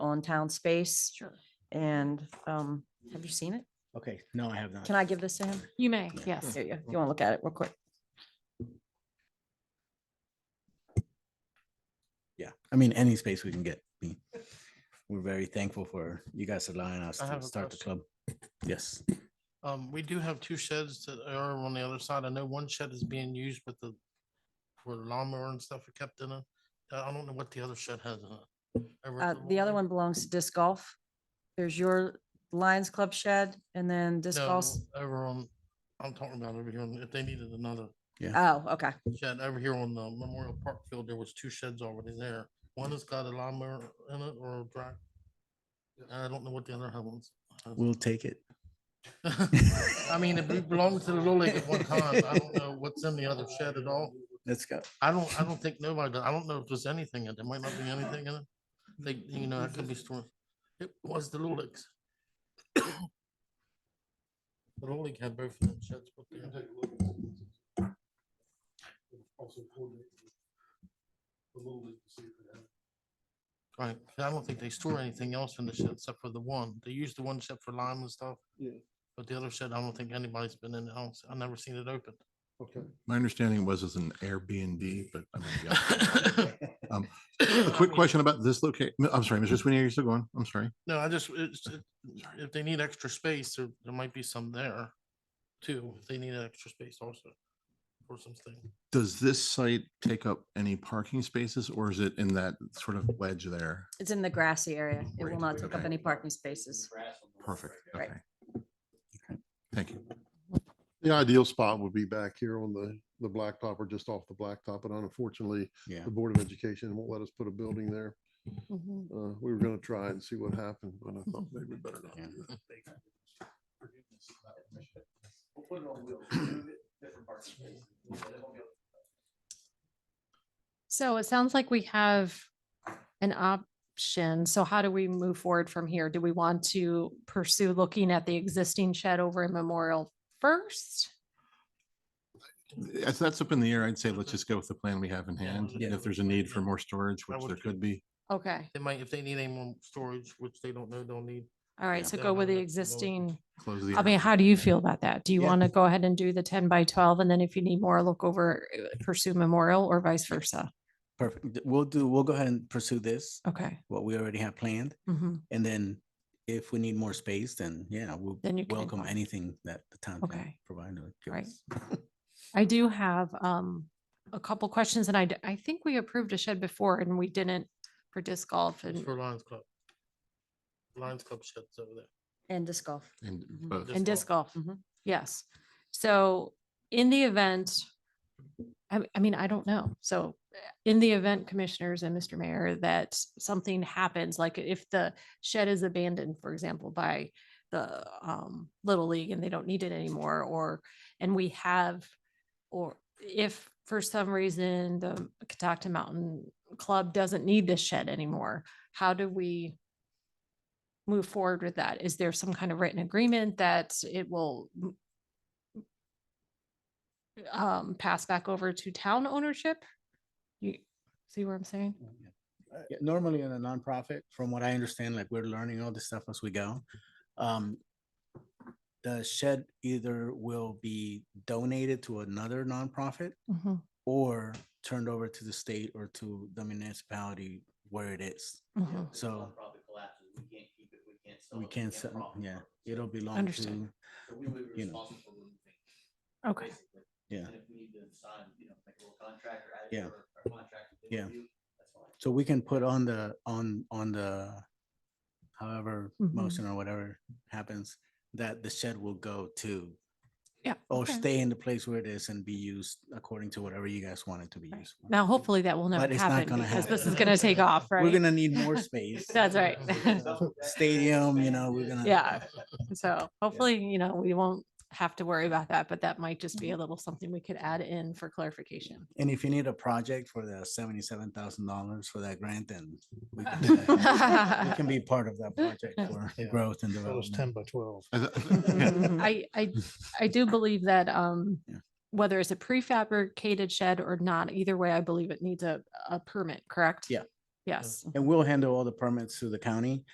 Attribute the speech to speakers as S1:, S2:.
S1: all in town space.
S2: Sure.
S1: And um, have you seen it?
S3: Okay, no, I have not.
S1: Can I give this to him?
S2: You may, yes.
S1: There you, go. you want to look at it real quick?
S3: Yeah, I mean, any space we can get. we- We're very thankful for you guys allowing us
S4: I
S3: to
S4: have a
S3: start the club. Yes,
S4: Um, we do have two sheds that are on the other side. I know one shed is being used with the, for lawnmower and stuff are kept in it. Uh, I don't know what the other shed has in it. over
S1: Uh,
S4: at
S1: the other
S4: Wolverine.
S1: one belongs to disc golf. There's your Lions Club shed and then disc
S4: No,
S1: golf.
S4: Over on, I'm talking about over here, on- if they needed another
S1: Oh, okay.
S4: shed, over here on the Memorial Park Field, there was two sheds already there. One has got a lawnmower in it or a drag. I don't know what the other ones.
S3: we'll take it.
S4: I mean, it be- belonged to the Little League at one time. I don't know what's in the other shed at all.
S3: Let's go.
S4: I don't, I don't think nobody, I don't know if there's anything in it. There might not be anything in it. They, you know, it could be stored. It was the Lulix. The Lulix had both of them sheds put there. Right, 'cause I don't think they store anything else in the shed except for the one. They use the one shed for lime and stuff.
S5: Yeah.
S4: But the other shed, I don't think anybody's been in the house. I've never seen it open.
S5: Okay.
S6: My understanding was it's an Airbnb, but I mean, yeah. Um, a quick question about this location. I'm sorry, Mr. Sweeney, are you still going? I'm sorry.
S4: No, I just, it's, it- if they need extra space, there, there might be some there too. if They need extra space also or something.
S6: Does this site take up any parking spaces or is it in that sort of wedge there?
S1: It's in the grassy area. It will
S6: Right,
S1: not take up
S6: okay.
S1: any parking spaces.
S6: Perfect.
S1: Right.
S6: Okay. Okay, Thank you.
S5: The ideal spot would be back here on the, the blacktop or just off the blacktop, but unfortunately,
S3: Yeah.
S5: the Board of Education won't let us put a building there.
S2: Mhm.
S5: Uh, we were gonna try and see what happened, but I
S2: Mm-hmm.
S5: thought maybe better not.
S3: Yeah.
S5: do that.
S2: So it sounds like we have an option. So how do we move forward from here? Do we want to pursue looking at the existing shed over in Memorial first?
S6: As that's up in the air, I'd say let's just go with the plan we have in
S4: Yeah,
S6: hand.
S4: yeah.
S6: If there's a need for more storage,
S4: I
S6: which
S4: would
S6: there
S4: too.
S6: could be.
S2: Okay,
S4: They might, if they need any more storage, which they don't know, they'll need.
S2: all right,
S4: Yeah.
S2: so
S4: Yeah,
S2: go
S4: no,
S2: with the
S4: that's- no.
S2: existing.
S6: Close the.
S2: I mean,
S6: air.
S2: how do you feel about that? Do you
S3: Yeah.
S2: want to go ahead and do the ten by twelve? And then if you need more, look over, uh, pursue Memorial or vice versa?
S3: Perfect. D- We'll do, we'll go ahead and pursue this,
S2: Okay.
S3: what we already have planned.
S2: mhm,
S3: And then if we need more space, then yeah, we'll
S2: Then you can
S3: welcome
S2: invite-
S3: anything that the town can
S2: Okay.
S3: provide. or give
S2: Right.
S3: us.
S2: I do have um a couple questions and I d- I think we approved a shed before and we didn't for disc golf
S4: It's
S2: and
S4: for Lions Club. Lions Club sheds over there.
S1: And disc golf.
S6: And
S1: Mhm.
S6: both.
S4: Disc
S2: And disc golf,
S1: Mhm.
S2: yes. So in the event, I, I mean, I don't know. So uh, in the event, commissioners and Mr. Mayor, that something happens, like if the shed is abandoned, for example, by the um, Little League and they don't need it anymore, or, and we have, or if for some reason the Catoctin Mountain Club doesn't need this shed anymore, how do we move forward with that? Is there some kind of written agreement that it will m- um, pass back over to town ownership? You see what I'm saying?
S3: Uh, yeah, Normally in a nonprofit, from what I understand, like we're learning all this stuff as we go. Um, the shed either will be donated to another nonprofit
S2: Mhm,
S3: or turned over to the state or to the municipality where it is.
S2: mhm.
S3: So-
S7: Probably collapses, we can't keep it, we can't sell it.
S3: We can't,
S7: can't
S3: sell-
S7: profit
S3: yeah,
S7: from it.
S3: it'll belong
S2: Understood.
S3: to,
S7: So we would be
S3: you know.
S7: responsible for removing,
S2: Okay,
S7: basically.
S3: yeah.
S7: And if we need to sign, you know, make a little contract or add it
S3: Yeah.
S7: to our our contract. if they
S3: Yeah.
S7: review, That's fine.
S3: So we can put on the, on, on the, however,
S2: Mhm.
S3: motion or whatever happens, that the shed will go to
S2: yeah.
S3: or
S2: okay.
S3: stay in the place where it is and be used according to whatever you guys want it to be
S2: Right.
S3: used. for.
S2: Now, hopefully that will never
S3: But it's not
S2: happen
S3: gonna
S2: because this is
S4: happen.
S2: gonna take off,
S3: We're
S2: right?
S3: gonna need more space.
S2: That's right.
S3: Stadium, you know, we're gonna.
S2: Yeah. So hopefully, you know, we won't have to worry about that, but that might just be a little something we could add in for clarification.
S3: And if you need a project for the seventy-seven thousand dollars for that grant, then we can do that. we can be part of that project for
S5: Yeah.
S3: growth and
S5: That was
S3: development.
S5: ten by twelve.
S6: I th- yeah,
S2: I, I, I do believe that, um,
S3: Yeah.
S2: whether it's a prefabricated shed or not, either way, I believe it needs a, a permit, correct?
S3: Yeah.
S2: Yes.
S3: And we'll handle all the permits through the county.